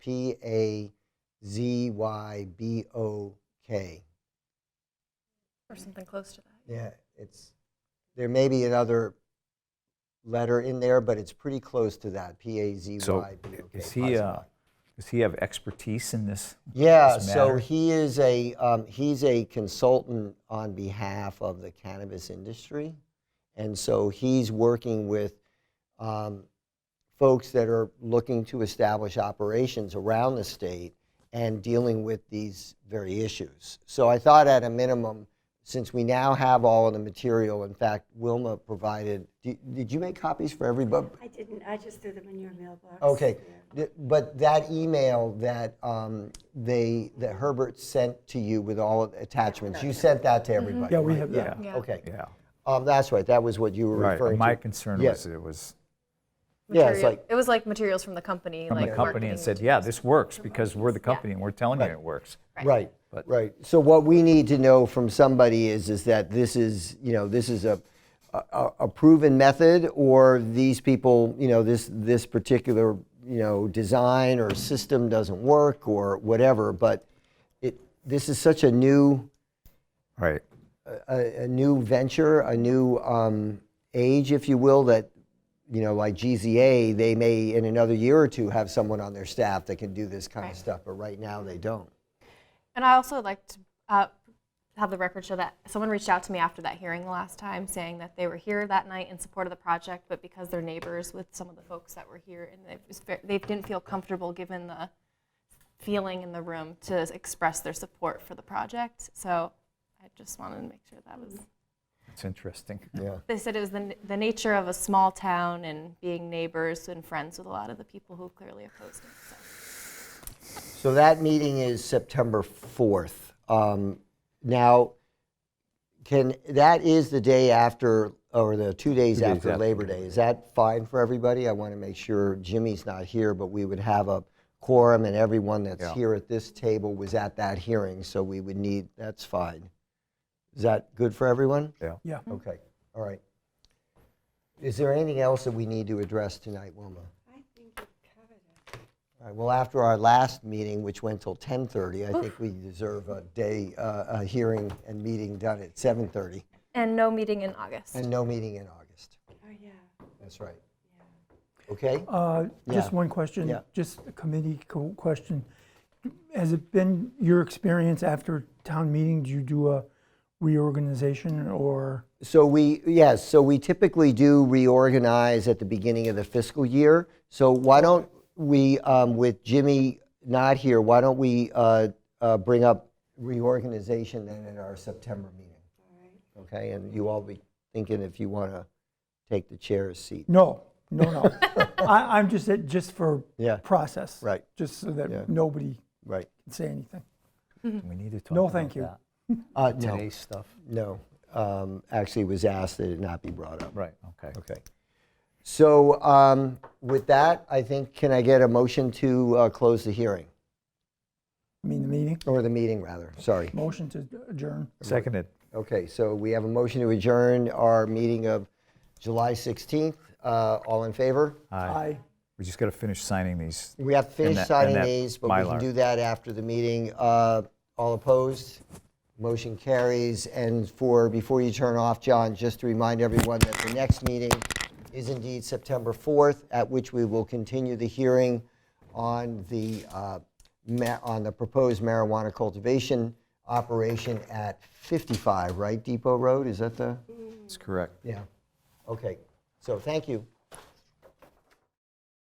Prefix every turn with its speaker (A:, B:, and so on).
A: P A Z Y B O K.
B: or something close to that.
A: Yeah, it's, there may be another letter in there, but it's pretty close to that, P A Z
C: So
A: Y B O K.
C: is he, uh, does he have expertise in this?
A: Yeah,
C: this
A: so
C: matter?
A: he is a, um, he's a consultant on behalf of the cannabis industry. And so he's working with um, folks that are looking to establish operations around the state and dealing with these very issues. So I thought at a minimum, since we now have all of the material, in fact, Wilma provided, did, did you make copies for everybody?
D: I didn't, I just threw them in your mailbox.
A: Okay,
D: Yeah.
A: th- but that email that um, they, that Herbert sent to you with all of the attachments, you sent that
D: Mm-hmm.
A: to everybody,
E: Yeah, we
A: right?
E: have
C: Yeah,
E: that.
B: Yeah.
A: Okay,
C: yeah.
A: Um, that's right, that was what you were
C: Right.
A: referring to.
C: My concern
A: Yeah.
C: was it was
A: Yeah, it's
B: Material-
A: like-
B: it was like materials from the company,
C: from
B: like
C: the company
B: marketing
C: and said,
B: materials.
C: yeah, this works because we're the company and we're telling you
A: Right.
C: it works.
A: Right,
C: But-
A: right. So what we need to know from somebody is, is that this is, you know, this is a, a a proven method, or these people, you know, this, this particular, you know, design or system doesn't work, or whatever, but it, this is such a new,
C: Right.
A: a, a new venture, a new um, age, if you will, that, you know, like GZA, they may in another year or two have someone on their staff that can do this kind of stuff, but right now they don't.
B: And I also like to uh, have the record show that someone reached out to me after that hearing the last time saying that they were here that night in support of the project, but because they're neighbors with some of the folks that were here and they, it was ve- they didn't feel comfortable given the feeling in the room to express their support for the project. So I just wanted to make sure that was.
C: It's interesting.
A: Yeah.
B: They said it was the, n- the nature of a small town and being neighbors and friends with a lot of the people who clearly opposed it. So.
A: So that meeting is September 4th. Um, Now, can, that is the day after, or the two days
C: Two days
A: after
C: after
A: Labor Day. Is that fine for everybody? I want to make sure Jimmy's not here, but we would have a quorum and everyone that's
C: Yeah.
A: here at this table was at that hearing, so we would need, that's fine. Is that good for everyone?
C: Yeah.
E: Yeah.
A: Mm-hmm. Okay, all right. Is there anything else that we need to address tonight, Wilma?
D: I think it covered it.
A: All right, well, after our last meeting, which went till 10:30, I think we deserve a day, uh, a hearing and meeting done at 7:30,
B: And no meeting in August.
A: and no meeting in August.
D: Oh, yeah.
A: That's right. Okay?
E: Uh, Just
A: Yeah.
E: one question,
A: Yeah.
E: just a committee co- question. Has it been your experience after town meeting, do you do a reorganization or?
A: So we, yes, so we typically do reorganize at the beginning of the fiscal year. So why don't we, um, with Jimmy not here, why don't we uh, uh, bring up reorganization then at our September meeting? Okay, and you all be thinking if you want to take the chair's seat.
E: No, no, no. I, I'm just, it- just for
A: Yeah.
E: process.
A: Right.
E: Just so
A: Yeah.
E: that nobody
A: Right.
E: can say anything.
C: We need to talk
E: No,
C: about
E: thank you.
C: that.
A: Uh, no,
C: Today's stuff.
A: no. Um, Actually, it was asked that it not be brought up.
C: Right, okay.
A: Okay. So um, with that, I think, can I get a motion to uh, close the hearing?
E: I mean, the meeting,
A: Or the meeting, rather, sorry.
E: motion to adjourn.
C: Seconded.
A: Okay, so we have a motion to adjourn our meeting of July 16th. Uh, All in favor?
C: Aye.
E: Aye.
C: We just got to finish signing these.
A: We have to finish
C: that- Uh, and
A: signing
C: that
A: these, but we can
C: Mylar.
A: do that after the meeting. Uh, All opposed? Motion carries. And for, before you turn off, John, just to remind everyone that the next meeting is indeed September 4th, at which we will continue the hearing on the, uh, ma- on the proposed marijuana cultivation operation at 55, right, Depot Road? Is that the?
C: That's correct.
A: Yeah. Okay. So thank you.